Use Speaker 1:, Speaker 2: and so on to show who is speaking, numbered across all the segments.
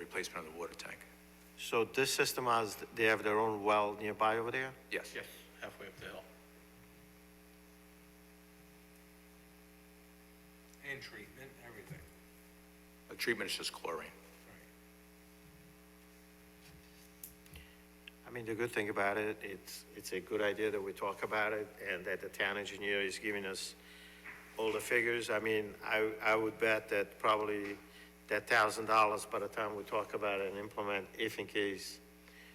Speaker 1: replacement of the water tank.
Speaker 2: So this system has, they have their own well nearby over there?
Speaker 1: Yes.
Speaker 3: Yes, halfway up the hill.
Speaker 4: And treatment, everything.
Speaker 1: The treatment is just chlorine.
Speaker 2: I mean, the good thing about it, it's, it's a good idea that we talk about it and that the town engineer is giving us all the figures. I mean, I, I would bet that probably that thousand dollars by the time we talk about it and implement, if in case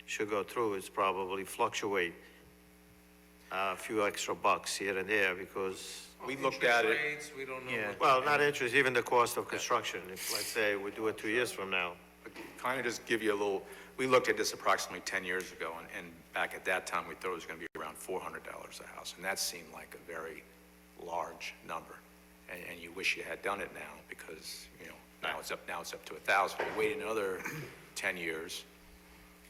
Speaker 2: should go through, it's probably fluctuate a few extra bucks here and there because,
Speaker 1: We looked at
Speaker 4: Oh, Interest
Speaker 1: it,
Speaker 4: Rates, we don't know.
Speaker 1: Yeah.
Speaker 4: what-
Speaker 2: well, not interest, even the cost of construction. If, let's say, we do it two years from now.
Speaker 1: kind of just give you a little, we looked at this approximately 10 years ago, and, and back at that time, we thought it was going to be around $400 a house, and that seemed like a very large number. And, and you wish you had done it now, because, you know, now it's up, now it's up to 1,000. We Wait another 10 years,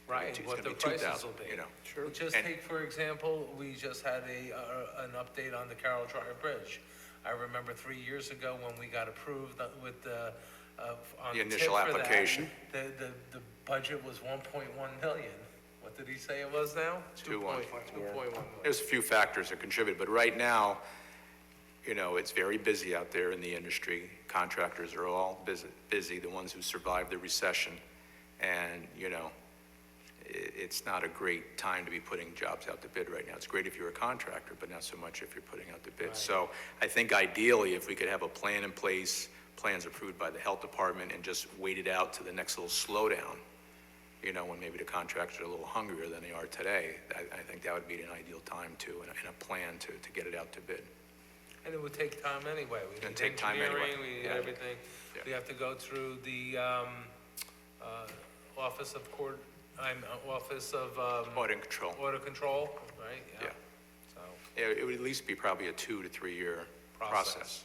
Speaker 4: Right,
Speaker 1: It's
Speaker 4: what
Speaker 1: gonna be
Speaker 4: the prices
Speaker 1: 2,000,
Speaker 4: will be.
Speaker 1: you know. Sure.
Speaker 4: Just
Speaker 1: And-
Speaker 4: take, for example, we just had a, uh, an update on the Carroll Drive Bridge. I remember three years ago when we got approved with the, uh, on
Speaker 1: The
Speaker 4: the tip
Speaker 1: initial
Speaker 4: for that,
Speaker 1: application.
Speaker 4: The, the, the budget was one point one million. What did he say it was now?
Speaker 1: Two one.
Speaker 4: Two point one million.
Speaker 1: There's a few factors that contribute, but right now, you know, it's very busy out there in the industry. Contractors are all busy, busy, the ones who survived the recession. And, you know, i it's not a great time to be putting jobs out to bid right now. It's great if you're a contractor, but not so much if you're putting out the bid. So I think ideally, if we could have a plan in place, plans approved by the health department, and just wait it out to the next little slowdown, you know, when maybe the contractors are a little hungrier than they are today, I, I think that would be an ideal time to, and a, and a plan to, to get it out to bid.
Speaker 4: And it would take time anyway. We
Speaker 1: It'd
Speaker 4: need
Speaker 1: take time anyway.
Speaker 4: engineering, We need
Speaker 1: Yeah.
Speaker 4: everything.
Speaker 1: Yeah.
Speaker 4: We have to go through the, um, uh, Office of Court, I'm, uh, Office of, um,
Speaker 1: Audit and control,
Speaker 4: Order Control, right?
Speaker 1: yeah.
Speaker 4: So,
Speaker 1: It, it would at least be probably a two to three-year
Speaker 4: Process.
Speaker 1: process.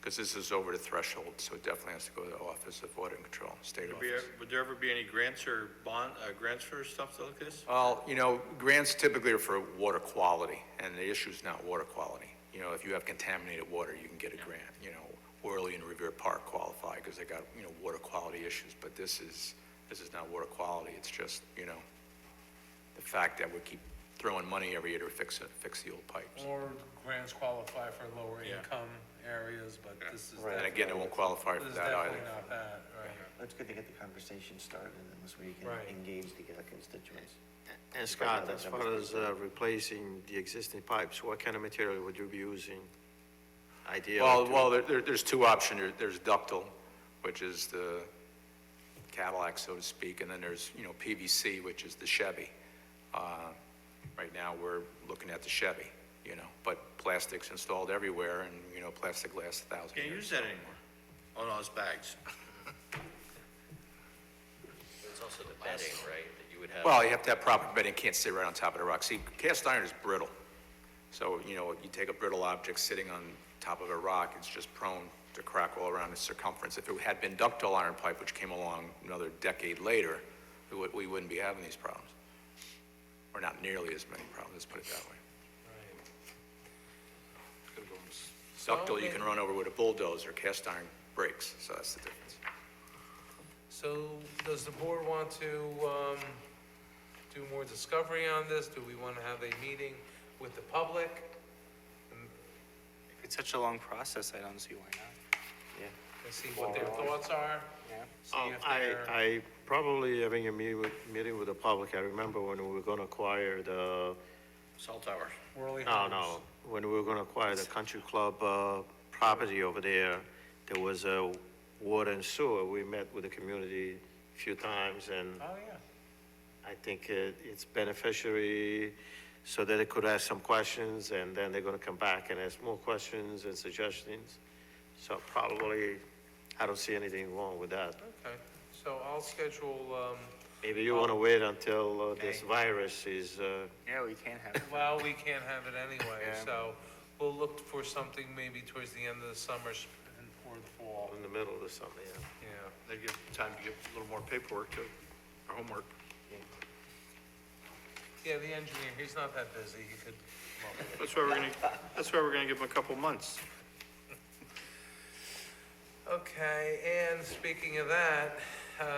Speaker 1: Because this is over the threshold, so it definitely has to go to the Office of Audit and Control, state
Speaker 3: Would
Speaker 1: office.
Speaker 3: be- Would there ever be any grants or bond, uh, grants for stuff like this?
Speaker 1: Well, you know, grants typically are for water quality, and the issue's not water quality. You know, if you have contaminated water, you can get a grant, you know. Worley and Revere Park qualify because they got, you know, water quality issues, but this is, this is not water quality, it's just, you know, the fact that we keep throwing money every year to fix it, fix the old pipes.
Speaker 4: or grants qualify for lower
Speaker 3: Yeah.
Speaker 4: income areas, but this is.
Speaker 5: Right.
Speaker 1: And again, it won't qualify for
Speaker 4: This is
Speaker 1: that
Speaker 4: definitely
Speaker 1: either.
Speaker 4: not that,
Speaker 5: It's good to get the conversation started and this week
Speaker 4: Right.
Speaker 5: and engage the uh, constituents.
Speaker 2: And Scott, as far as uh, replacing the existing pipes, what kind of material would you be using? Ideally?
Speaker 1: Well,
Speaker 2: to-
Speaker 1: well, there- there, there's two options. There- There's ductile, which is the Cadillac, so to speak, and then there's, you know, PVC, which is the Chevy. Uh, Right now, we're looking at the Chevy, you know, but plastic's installed everywhere, and, you know, plastic lasts a thousand years.
Speaker 3: Can't use that anymore. Oh, no, it's bags.
Speaker 6: It's also the bedding, right, that you would have.
Speaker 1: Well, you have to have proper bedding, it can't sit right on top of the rock. See, cast iron is brittle. So, you know, you take a brittle object sitting on top of a rock, it's just prone to crack all around its circumference. If it had been ductile iron pipe, which came along another decade later, we would- we wouldn't be having these problems. Or not nearly as many problems, let's put it that way.
Speaker 4: right, right.
Speaker 1: Ductile, you can run over with a bulldozer, cast iron breaks, so that's the difference.
Speaker 4: So does the board want to, um, do more discovery on this? Do we want to have a meeting with the public?
Speaker 7: If it's such a long process, I don't see why not.
Speaker 4: And see what their thoughts are?
Speaker 7: Yeah.
Speaker 4: See
Speaker 2: Um,
Speaker 4: if
Speaker 2: I,
Speaker 4: they're-
Speaker 2: I probably having a meeting with, meeting with the public, I remember when we were gonna acquire the,
Speaker 3: Cell tower.
Speaker 4: Worley
Speaker 2: no,
Speaker 4: Homes.
Speaker 2: no, when we were gonna acquire the country club, uh, property over there, there was a water and sewer, we met with the community a few times, and
Speaker 4: Oh, yeah.
Speaker 2: I think it, it's beneficiary so that it could ask some questions and then they're gonna come back and ask more questions and suggestions. So probably, I don't see anything wrong with that.
Speaker 4: Okay, so I'll schedule, um,
Speaker 2: Maybe you wanna wait until uh, this virus is, uh,
Speaker 7: Yeah, we can have. it.
Speaker 4: well, we can't have it anyway,
Speaker 7: Yeah.
Speaker 4: so we'll look for something maybe towards the end of the summer s- and- or the fall,
Speaker 2: in the middle or something, yeah.
Speaker 4: yeah.
Speaker 3: They give time to give a little more paperwork to, or homework.
Speaker 4: Yeah, the engineer, he's not that busy, he could, come up with it.
Speaker 3: That's why we're gonna, that's why we're gonna give them a couple months.
Speaker 4: Okay, and speaking of that, uh,